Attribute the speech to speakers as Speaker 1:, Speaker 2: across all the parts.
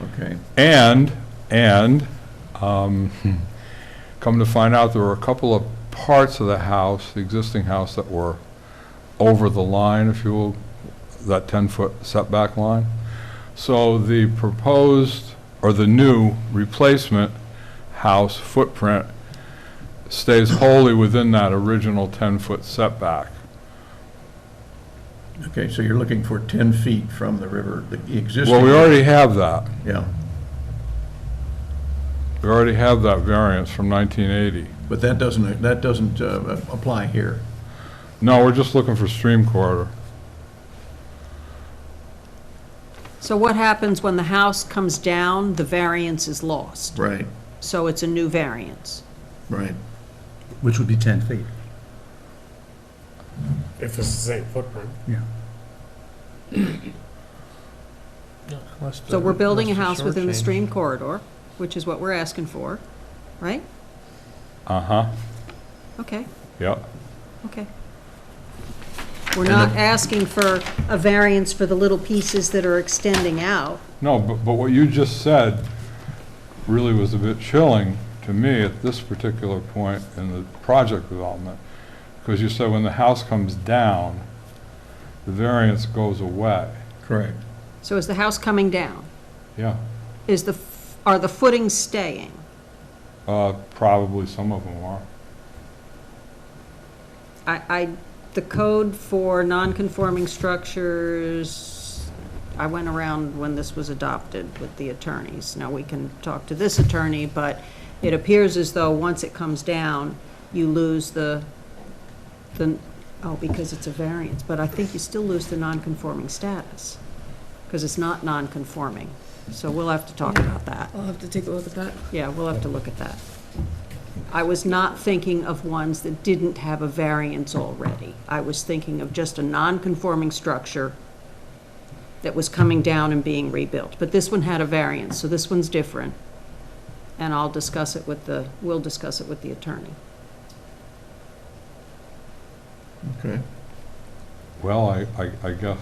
Speaker 1: Okay.
Speaker 2: And, and, um, come to find out, there were a couple of parts of the house, the existing house, that were over the line, if you will, that 10-foot setback line. So the proposed, or the new replacement house footprint stays wholly within that original 10-foot setback.
Speaker 1: Okay, so you're looking for 10 feet from the river, the existing.
Speaker 2: Well, we already have that.
Speaker 1: Yeah,
Speaker 2: We already have that variance from 1980.
Speaker 1: but that doesn't, that doesn't uh, apply here.
Speaker 2: No, we're just looking for stream corridor.
Speaker 3: So what happens when the house comes down, the variance is lost?
Speaker 1: Right,
Speaker 3: So it's a new variance?
Speaker 1: right.
Speaker 4: Which would be 10 feet,
Speaker 5: If it's the same footprint.
Speaker 4: yeah.
Speaker 3: So we're building a house within the stream corridor, which is what we're asking for, right?
Speaker 2: Uh-huh,
Speaker 3: Okay,
Speaker 2: yep.
Speaker 3: okay. We're not asking for a variance for the little pieces that are extending out.
Speaker 2: No, but, but what you just said really was a bit chilling to me at this particular point in the project development. Because you said when the house comes down, the variance goes away.
Speaker 1: Correct.
Speaker 3: So is the house coming down?
Speaker 2: Yeah,
Speaker 3: Is the, f- are the footings staying?
Speaker 2: uh, probably some of them are.
Speaker 3: I, I, the code for non-conforming structures, I went around when this was adopted with the attorneys. Now, we can talk to this attorney, but it appears as though once it comes down, you lose the, the, oh, because it's a variance, but I think you still lose the non-conforming status, because it's not non-conforming. So we'll have to talk about that.
Speaker 6: I'll have to take a look at that.
Speaker 3: Yeah, we'll have to look at that. I was not thinking of ones that didn't have a variance already. I was thinking of just a non-conforming structure that was coming down and being rebuilt. But this one had a variance, so this one's different. And I'll discuss it with the, we'll discuss it with the attorney.
Speaker 1: Okay.
Speaker 2: Well, I, I, I guess,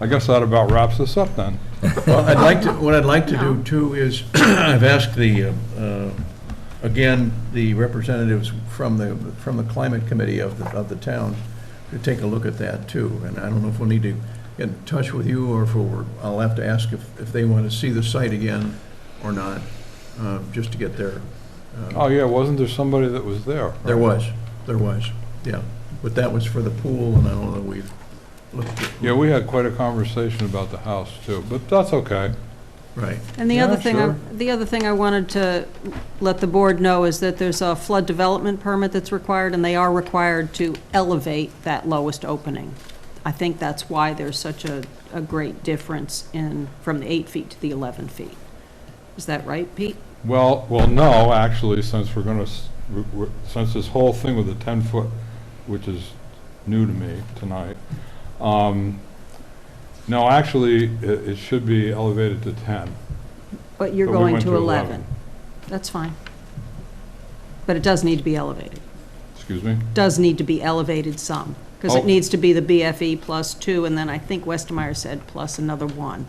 Speaker 2: I guess that about wraps us up then.
Speaker 1: Well, I'd like to, what I'd like to do
Speaker 3: No.
Speaker 1: too is, I've asked the, uh, uh, again, the representatives from the, from the climate committee of the, of the town to take a look at that too. And I don't know if we'll need to get in touch with you or if we'll, I'll have to ask if, if they want to see the site again or not, uh, just to get their. uh,
Speaker 2: Oh, yeah, wasn't there somebody that was there?
Speaker 1: There was, there was, yeah. But that was for the pool and I don't know that we've looked at.
Speaker 2: Yeah, we had quite a conversation about the house too, but that's okay.
Speaker 1: Right,
Speaker 3: And the
Speaker 2: Yeah,
Speaker 3: other thing, I-
Speaker 2: sure.
Speaker 3: the other thing I wanted to let the board know is that there's a flood development permit that's required, and they are required to elevate that lowest opening. I think that's why there's such a, a great difference in, from the eight feet to the 11 feet. Is that right, Pete?
Speaker 2: Well, well, no, actually, since we're gonna, s- we're- we're- since this whole thing with the 10-foot, which is new to me tonight, um, no, actually, i- it should be elevated to 10.
Speaker 3: But you're
Speaker 2: but we
Speaker 3: going
Speaker 2: went
Speaker 3: to 11. That's fine. But it does need to be elevated.
Speaker 2: Excuse me?
Speaker 3: Does need to be elevated some, because
Speaker 2: Oh.
Speaker 3: it needs to be the BFE plus two, and then I think Westmeyer said plus another one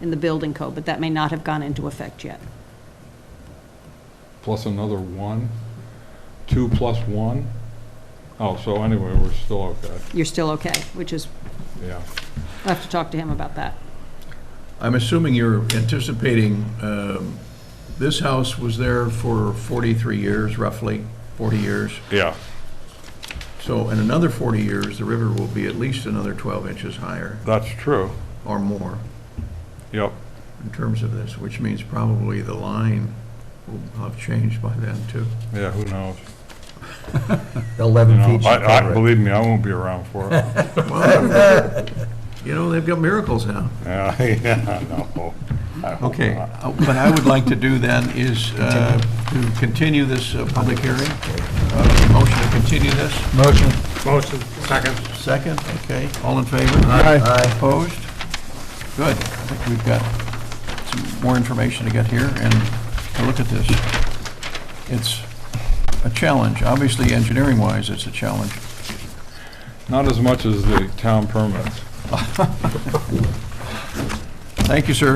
Speaker 3: in the building code, but that may not have gone into effect yet.
Speaker 2: Plus another 1? 2 plus 1? Oh, so anyway, we're still okay,
Speaker 3: You're still okay, which is,
Speaker 2: yeah.
Speaker 3: I'll have to talk to him about that.
Speaker 1: I'm assuming you're anticipating, um, this house was there for 43 years, roughly, 40 years.
Speaker 2: Yeah.
Speaker 1: So in another 40 years, the river will be at least another 12 inches higher
Speaker 2: That's true,
Speaker 1: or more
Speaker 2: yep.
Speaker 1: in terms of this, which means probably the line will have changed by then too.
Speaker 2: Yeah, who knows?
Speaker 4: 11
Speaker 2: You
Speaker 4: feet
Speaker 2: know,
Speaker 4: should
Speaker 2: I- I-
Speaker 4: cover it.
Speaker 2: Believe me, I won't be around for it.
Speaker 1: Well, You know, they've got miracles now.
Speaker 2: Yeah, yeah, no. I hope
Speaker 1: Okay,
Speaker 2: not.
Speaker 1: uh, what I would like to do then is uh, to continue this uh, public hearing. Uh, Motion to continue this,
Speaker 4: Motion.
Speaker 5: Motion, second.
Speaker 1: second, okay, all in favor?
Speaker 4: Aye. Aye.
Speaker 1: Opposed? Good, I think we've got some more information to get here, and to look at this. It's a challenge, obviously engineering-wise, it's a challenge.
Speaker 2: Not as much as the town permits.
Speaker 1: Thank you, sir.